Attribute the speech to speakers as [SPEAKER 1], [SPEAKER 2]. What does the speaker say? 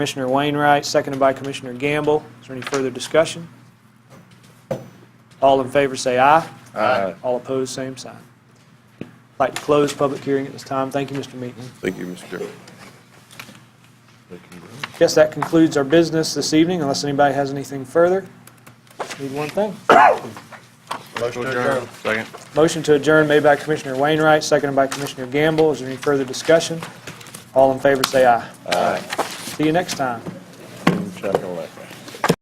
[SPEAKER 1] Commissioner Wainwright, seconded by Commissioner Gamble. Is there any further discussion? All in favor, say aye.
[SPEAKER 2] Aye.
[SPEAKER 1] All opposed, same sign. I'd Like to close public hearing at this time. Thank you, Mr. Meaton.
[SPEAKER 2] Thank you, Mr. Chairman.
[SPEAKER 1] Guess that concludes our business this evening, unless anybody has anything further. Need one thing.
[SPEAKER 2] Motion adjourned. Second.
[SPEAKER 1] Motion to adjourn made by Commissioner Wainwright, seconded by Commissioner Gamble. Is there any further discussion? All in favor, say aye. Aye. See you next time.
[SPEAKER 2] Check on that.